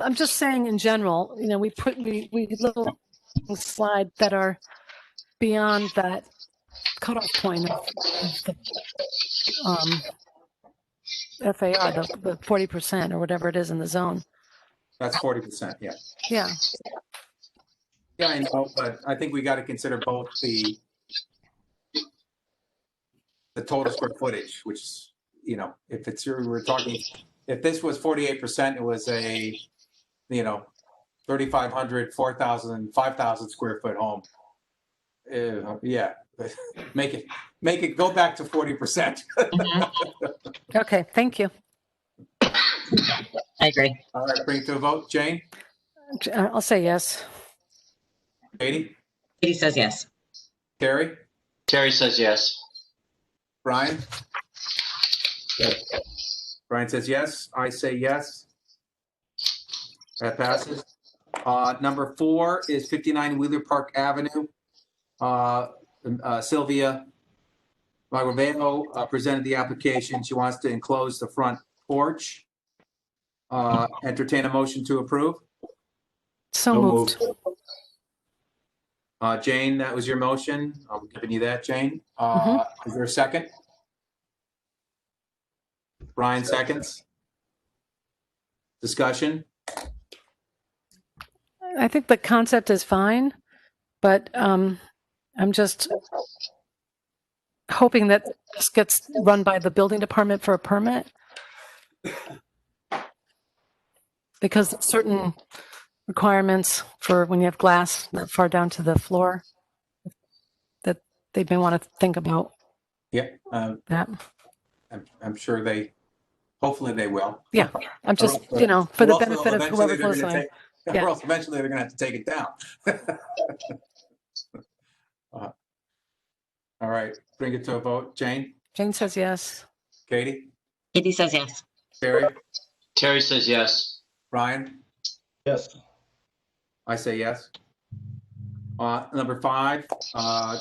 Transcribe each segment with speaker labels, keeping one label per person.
Speaker 1: I'm just saying in general, you know, we put, we, we little slide that are beyond that cutoff point of of the, um, FAR, the, the forty percent or whatever it is in the zone.
Speaker 2: That's forty percent, yeah.
Speaker 1: Yeah,
Speaker 2: Yeah, I know, but I think we got to consider both the the total square footage, which, is, you know, if it's, your- we're talking, if this was forty-eight percent, it was a, you know, 3,500, 4,000, 5,000 square foot home. Uh, yeah, make it, make it go back to forty percent.
Speaker 1: okay, thank you.
Speaker 3: I agree.
Speaker 2: All right, bring it to a vote. Jane,
Speaker 1: J- uh, I'll say yes.
Speaker 2: Katie,
Speaker 3: Katie says yes.
Speaker 2: Terry,
Speaker 4: Terry says yes.
Speaker 2: Brian? Brian says yes. I say yes. That passes. Uh, number four is 59 Wheeler Park Avenue. Uh, uh, Sylvia Magravano uh, presented the application. She wants to enclose the front porch. Uh, entertain a motion to approve.
Speaker 1: So moved.
Speaker 2: Uh, Jane, that was your motion. I'm giving you that, Jane. Uh,
Speaker 1: Mm-hmm.
Speaker 2: is there a second? Brian seconds. Discussion?
Speaker 1: I think the concept is fine, but um, I'm just hoping that this gets run by the building department for a permit. Because certain requirements for when you have glass that far down to the floor that they may want to think about
Speaker 2: Yeah, um,
Speaker 1: that.
Speaker 2: I'm, I'm sure they, hopefully they will.
Speaker 1: Yeah, I'm just, you know, for the
Speaker 2: Or else
Speaker 1: benefit of
Speaker 2: eventually
Speaker 1: whoever
Speaker 2: they're
Speaker 1: goes
Speaker 2: gonna
Speaker 1: on.
Speaker 2: take-
Speaker 1: Yeah.
Speaker 2: Or else eventually they're gonna have to take it down. Uh, All right, bring it to a vote. Jane,
Speaker 1: Jane says yes.
Speaker 2: Katie,
Speaker 3: Katie says yes.
Speaker 2: Barry,
Speaker 4: Terry says yes.
Speaker 2: Ryan?
Speaker 5: Yes.
Speaker 2: I say yes. Uh, number five, uh,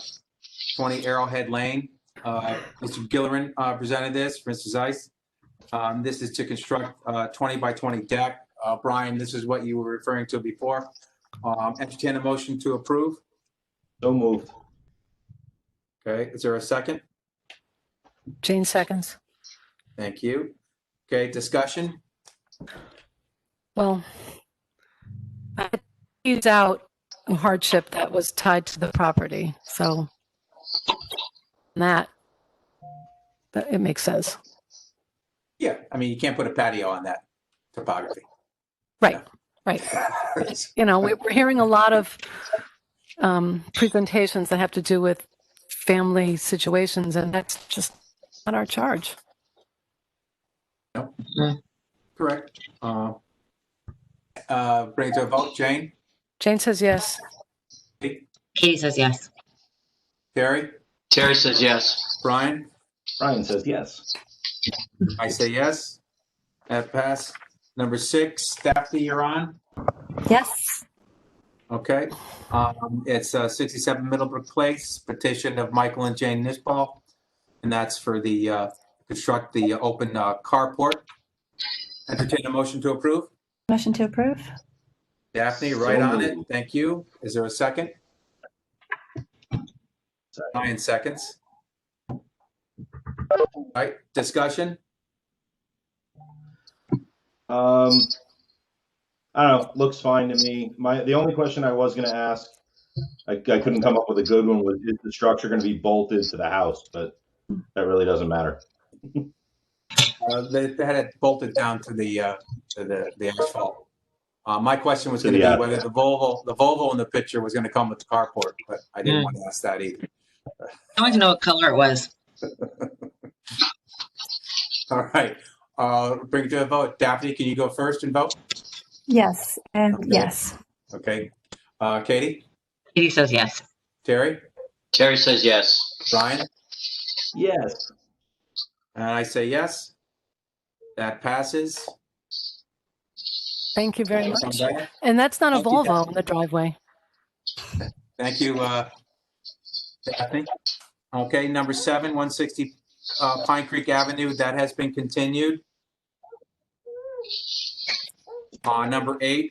Speaker 2: twenty Arrowhead Lane. Uh, Mr. Gillerin, uh, presented this, Mr. Zeiss. Um, this is to construct, uh, twenty by twenty deck. Uh, Brian, this is what you were referring to before. Um, entertain a motion to approve.
Speaker 5: So moved.
Speaker 2: Okay, is there a second?
Speaker 1: Jane seconds.
Speaker 2: Thank you. Okay, discussion?
Speaker 1: Well, I used out hardship that was tied to the property, so that, that it makes sense.
Speaker 2: Yeah, I mean, you can't put a patio on that topography.
Speaker 1: Right, right. You know, we- we're hearing a lot of um, presentations that have to do with family situations, and that's just not our charge.
Speaker 2: Correct. Uh, uh, bring it to a vote. Jane,
Speaker 1: Jane says yes.
Speaker 3: Katie says yes.
Speaker 2: Terry,
Speaker 4: Terry says yes.
Speaker 2: Brian?
Speaker 5: Brian says yes.
Speaker 2: I say yes. That passed. Number six, Daphne, you're on.
Speaker 6: Yes,
Speaker 2: Okay. Um, It's uh, 67 Middlebrook Place, petition of Michael and Jane Nisball. And that's for the, uh, construct the open uh, carport. Entertain a motion to approve.
Speaker 6: motion to approve.
Speaker 2: Daphne, right on it. Thank you. Is there a second? Nine seconds. All right, discussion?
Speaker 5: Um, I don't know. Looks fine to me. My the only question I was going to ask, I, I couldn't come up with a good one. Was is the structure going to be bolted to the house? But that really doesn't matter.
Speaker 2: Uh, They they had it bolted down to the, uh, to the the asphalt. Uh, My question was
Speaker 5: To
Speaker 2: going to
Speaker 5: the
Speaker 2: be
Speaker 5: asphalt.
Speaker 2: whether the Volvo, the Volvo in the picture was going to come with the carport, but I didn't want to ask that either.
Speaker 3: I wanted to know what color it was.
Speaker 2: All right, Uh, bring it to a vote. Daphne, can you go first and vote?
Speaker 6: Yes, and
Speaker 2: Okay.
Speaker 6: yes,
Speaker 2: Okay. Uh, Katie,
Speaker 3: Katie says yes.
Speaker 2: Terry,
Speaker 4: Terry says yes.
Speaker 2: Brian,
Speaker 5: Yes.
Speaker 2: and I say yes. That passes.
Speaker 1: Thank you very much.
Speaker 2: Okay.
Speaker 1: And that's not a
Speaker 2: Thank you,
Speaker 1: Volvo
Speaker 2: Daphne.
Speaker 1: in the driveway.
Speaker 2: Thank you, uh, Daphne. Okay, number seven, 160 uh, Pine Creek Avenue, that has been continued. Uh, number eight,